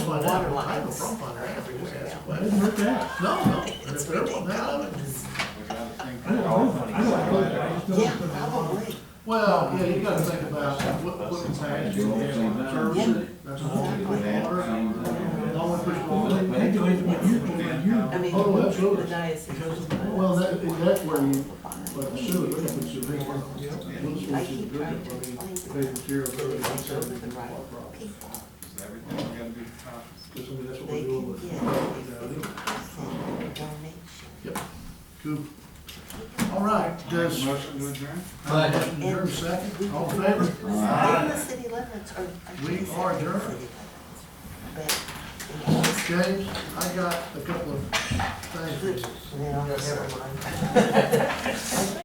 find water out. I have a lines. problem finding out if we just ask a Yeah. question. I didn't hurt that. No, no. And It's if they're wanting that, I love it. ridiculous. I didn't hurt that. I don't hurt that. I just don't Yeah, hurt that. probably. Well, yeah, you gotta think about what, what impact you have on the church, that's all. No one pushed Well, forward. They do it when you, when you. I mean, Oh, absolutely. the diocese is fine. Well, that, that's where you, but surely, we can put your big one, yeah, those I ones you keep do it, I trying mean, to if explain they material, to they them, don't those are send it the to right our problem. people. Everything's gotta be top. Because, I mean, that's what They we're doing can with. get yeah, a they- fifty percent donation. Yep. Cool. All right, does, Motion to adjourn? your second, all in favor? Not in the city limits, or. or We is it are in the adjourned. city limits? But, in all the James, I got a couple of things. No, never mind.